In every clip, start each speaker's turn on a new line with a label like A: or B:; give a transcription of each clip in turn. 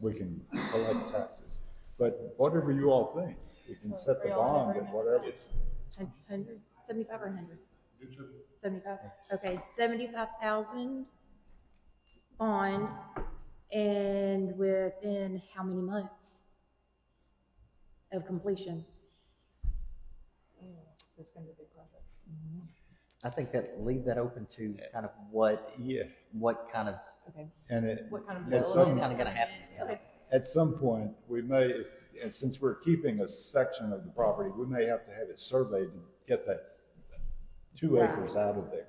A: we can collect taxes. But whatever you all think, we can set the bond at whatever.
B: Hundred, seventy-five or hundred? Seventy-five, okay, seventy-five thousand bond, and within how many months of completion?
C: It's gonna be a big project.
D: I think that, leave that open to kind of what,
A: Yeah,
D: what kind of,
C: Okay.
A: and it,
C: What kind of
A: at
C: bill
D: what's
A: some,
D: kind of gonna happen.
B: Okay,
A: at some point, we may, if- and since we're keeping a section of the property, we may have to have it surveyed to get that two
B: Right.
A: acres out of there.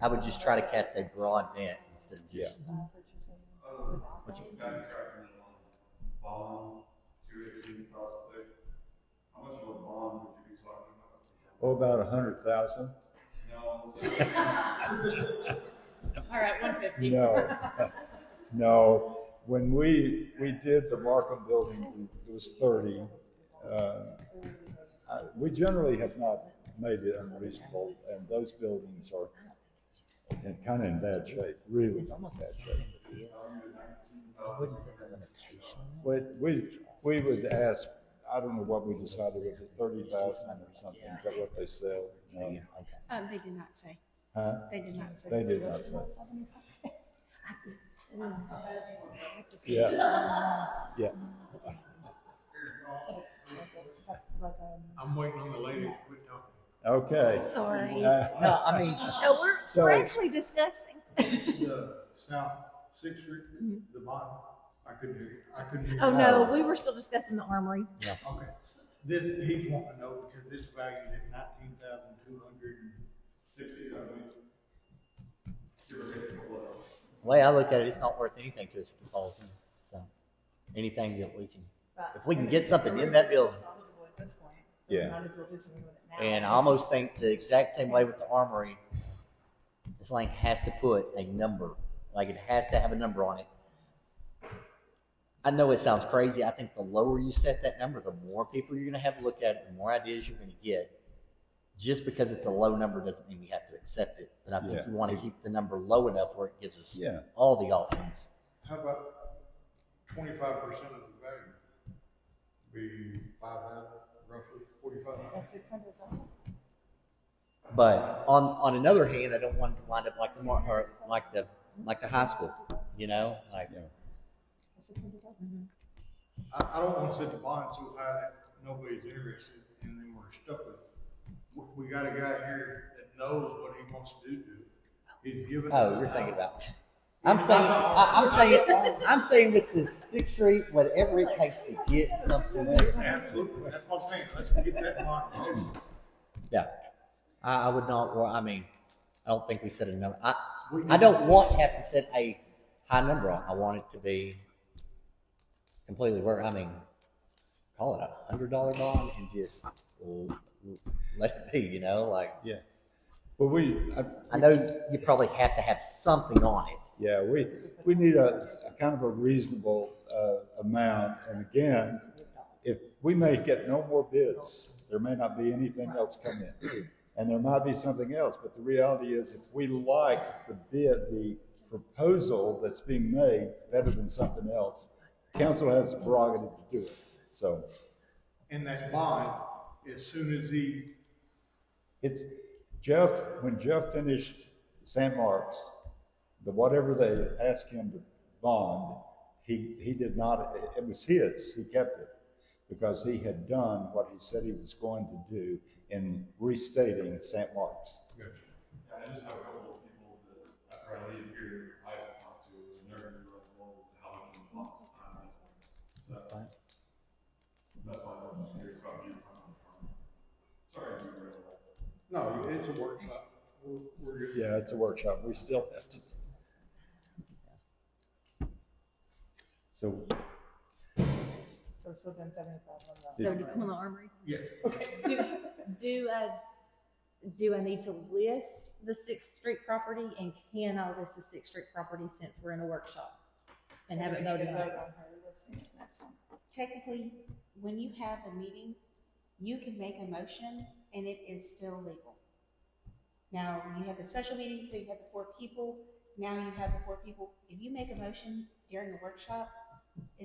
D: I would just try to cast a broad net instead of
A: Yeah.
D: just,
E: Contract minimum bond, two eighteen, south six. How much of a bond would you be talking about?
A: Oh, about a hundred thousand?
E: No,
C: All right, one fifty.
A: No, no. When we, we did the Markham building, it was thirty. Uh, I- We generally have not made it unreasonable, and those buildings are in kind of in bad shape, really
D: it's almost
A: bad
D: as
A: shape.
D: same as this. I wouldn't put the limitation on
A: But we, we would ask, I don't know what we decided, was it thirty thousand or something? Is that what they sell?
D: it.
A: No.
D: Okay.
F: Um, they did not say.
A: Huh?
F: They did not say.
A: They did not say. Yeah, yeah.
G: I'm waiting on the lady to quit talking.
A: Okay.
F: Sorry.
A: Uh,
D: No, I mean,
F: No, we're,
A: So-
F: we're actually discussing.
G: The South Sixth Street, the bottom, I couldn't hear, you. I couldn't hear. you.
F: Oh, no, we were still discussing the armory.
G: Okay, this, he's wanting to know because this value is nineteen thousand two hundred and
E: sixty, I mean, give or take a couple of hours.
D: the way I look at it, it's not worth anything to us if it falls in, so, anything that we can, if we can get something in that building.
C: At this point.
A: Yeah.
C: Might as well do something with it now.
D: And I almost think the exact same way with the armory, this thing has to put a number, like it has to have a number on it. I know it sounds crazy. I think the lower you set that number, the more people you're going to have look at it, the more ideas you're going to get. Just because it's a low number doesn't mean we have to accept it. But I think
A: Yeah.
D: you want to keep the number low enough where it gives us
A: Yeah.
D: all the options.
G: How about twenty-five percent of the value? Be five thousand, roughly forty-five.
C: That's six hundred thousand.
D: But on on another hand, I don't want it to wind up like the mar- or like the like the high school, you know, like
A: Yeah.
G: I, I don't wanna set the bond so high that nobody's interested and then we're stuck with it. We- We got a guy here that knows what he wants to do. to it. He's given us.
D: Oh,
G: an
D: you're thinking
G: hour.
D: about. I'm saying, I, I'm saying, I'm saying with the Sixth Street, whatever it takes to get something.
G: Absolutely, that's what I'm saying, let's get that bond.
D: Yeah, I, I would not. wor- I mean, I don't think we set a number. I,
G: We
D: I don't want to have to set a high number. on. I want it to be completely where I mean, call it a hundred dollar bond and just l- l- let it be. You know, like
A: Yeah. But we, I,
D: I know you probably have to have something on it.
A: yeah, we, we need a, a kind of a reasonable, uh, amount. And again, if we may get no more bids, there may not be anything else come in. And there might be something else, but the reality is if we like the bid, the proposal that's being made better than something else, council has the prerogative to do it. So
G: And that bond, as soon as he,
A: It's Jeff, when Jeff finished San Marks, the whatever they asked him to bond, he, he did not, it was his, he kept it. Because he had done what he said he was going to do in restating San Marks.
E: Yeah, I just have a couple of people that after I leave here, I have talked to, and they're gonna be like, well, how much of a bond is on this one? So, that's why I'm just curious about you. Sorry, I didn't realize.
G: no, it's a workshop, we're, we're good.
A: Yeah, it's a workshop, we still have to. So,
C: So we're still doing seventy-five on that.
B: seventy, on the armory.
G: Yes,
B: Do, do, uh, do I need to list the Sixth Street property, and can I list the Sixth Street property since we're in a workshop? And have it
C: We need
B: voted
C: to
B: on?
C: vote on her listing next time.
F: Technically, when you have a meeting, you can make a motion and it is still legal. Now, you have the special meeting, so you have the four people. Now you have the four people. If you make a motion during the workshop,